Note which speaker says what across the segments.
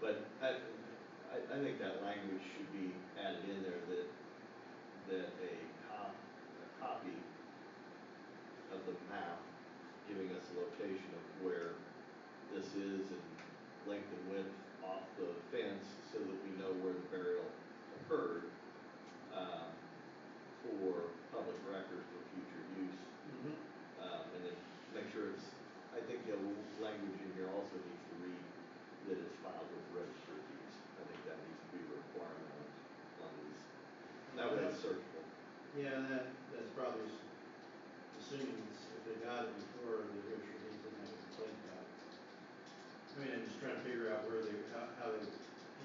Speaker 1: But I, I, I think that language should be added in there that, that a cop, a copy of the map giving us the location of where this is and length and width off the fence so that we know where the burial occurred, um, for public record for future use. Um, and then make sure it's, I think the language in here also needs to read that it's filed with registered deeds. I think that needs to be a requirement on, on these. That way it's searchable.
Speaker 2: Yeah, that, that's probably s- assuming it's- if they got it before the Hampshire Heat didn't have a complaint about it. I mean, I'm just trying to figure out where they, how, how they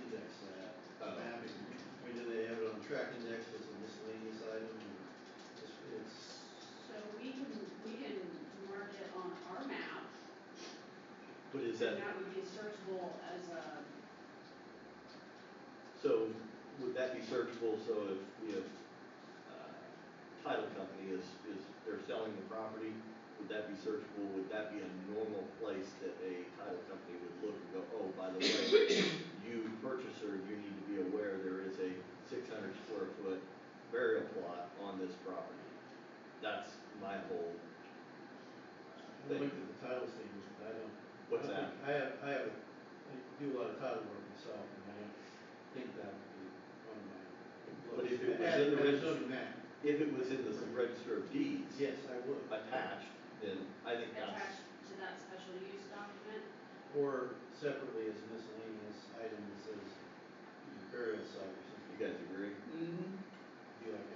Speaker 2: index that
Speaker 1: Oh.
Speaker 2: mapping. I mean, do they have it on track index as a miscellaneous item or it's, it's,
Speaker 3: So we can, we can mark it on our map,
Speaker 1: But is
Speaker 3: and
Speaker 1: that,
Speaker 3: that would be searchable as a,
Speaker 1: so would that be searchable, so if, if, uh, title company is, is, they're selling the property, would that be searchable, would that be a normal place that a title company would look and go, oh, by the way, you purchaser, you need to be aware there is a six hundred square foot burial plot on this property. That's my whole,
Speaker 2: I
Speaker 1: Thank
Speaker 2: looked at the title statements, but I don't. I
Speaker 1: what's that?
Speaker 2: don't think- I have, I have, a- I do a lot of title work myself and I don't think that would be on my.
Speaker 1: But if it was
Speaker 2: As-
Speaker 1: in the
Speaker 2: as a
Speaker 1: regist-
Speaker 2: zoning map,
Speaker 1: If it was in the register of deeds.
Speaker 2: yes, I would.
Speaker 1: Attached, then I think that's.
Speaker 3: attached to that special use document.
Speaker 2: Or separately as miscellaneous item that says you know, burial site or something.
Speaker 1: You guys agree?
Speaker 2: Be like a
Speaker 4: Mm-hmm.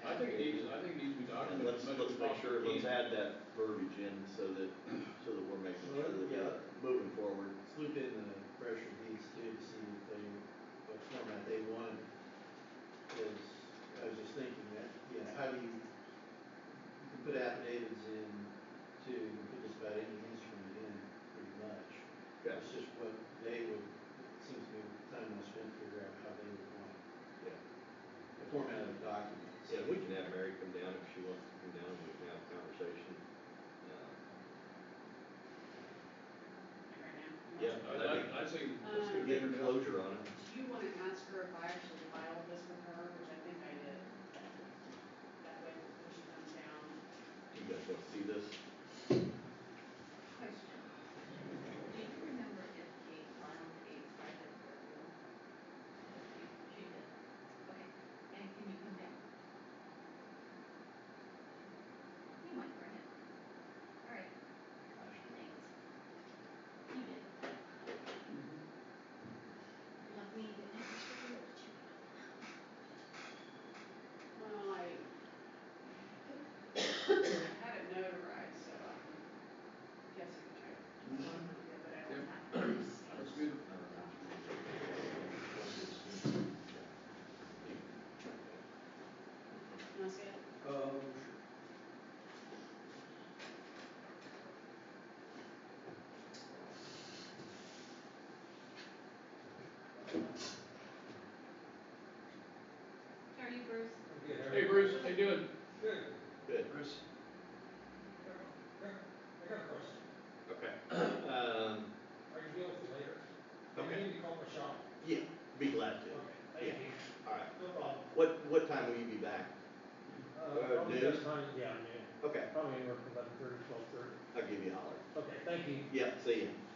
Speaker 4: I think it
Speaker 2: happy-
Speaker 4: needs, I think it needs to be
Speaker 1: And
Speaker 4: documented.
Speaker 1: let's,
Speaker 4: as much
Speaker 1: let's
Speaker 4: as
Speaker 1: make sure,
Speaker 4: possibly
Speaker 1: let's add that verbiage in so that, so that we're making sure that
Speaker 2: Yeah.
Speaker 1: we're moving forward.
Speaker 2: Let's loop in the pressure deeds too to see if they, what format they wanted. Because I was just thinking that, you know, how do you, you can put affidavits in to put just about any instrument in pretty much.
Speaker 1: Yeah,
Speaker 2: It's just what they would, it seems to me time well spent to figure out how they would want
Speaker 1: yeah.
Speaker 2: the format of the document.
Speaker 1: Yeah, we can have Mary come down if she wants to come down, we can have a conversation. Uh,
Speaker 3: Right now.
Speaker 1: Yeah.
Speaker 4: I, I, I say, let's
Speaker 3: Um,
Speaker 1: Get
Speaker 4: get it down.
Speaker 1: closure on it.
Speaker 3: Do you want to ask her if I actually filed this with her, which I think I did? That way, when she comes down.
Speaker 1: Do you guys want to see this?
Speaker 5: Question. Do you remember if Kate filed a private burial? She, she did. Okay, and can you come down? You might bring it. All right. Thanks. You did. Let me get an extra roll to you.
Speaker 3: Well, I, I had it notarized, so I guess I can try. to- But I don't have.
Speaker 4: That's good.
Speaker 3: Can I see it?
Speaker 2: Um,
Speaker 5: How are you, Bruce?
Speaker 4: Hey Bruce, how you doing?
Speaker 1: Good.
Speaker 2: Bruce,
Speaker 6: I got a question.
Speaker 1: Okay. Um,
Speaker 6: Are you dealing with later?
Speaker 1: Okay.
Speaker 6: You need to call my shop.
Speaker 1: yeah, be glad to.
Speaker 6: Okay, thank you.
Speaker 1: All right.
Speaker 6: No problem.
Speaker 1: What, what time will you be back? Uh,
Speaker 6: probably
Speaker 1: noon?
Speaker 6: best time, yeah, noon.
Speaker 1: Okay,
Speaker 6: Probably anywhere from eleven thirty, twelve thirty.
Speaker 1: I'll give you a holler.
Speaker 6: Okay, thank you.
Speaker 1: Yeah, see ya.
Speaker 3: um,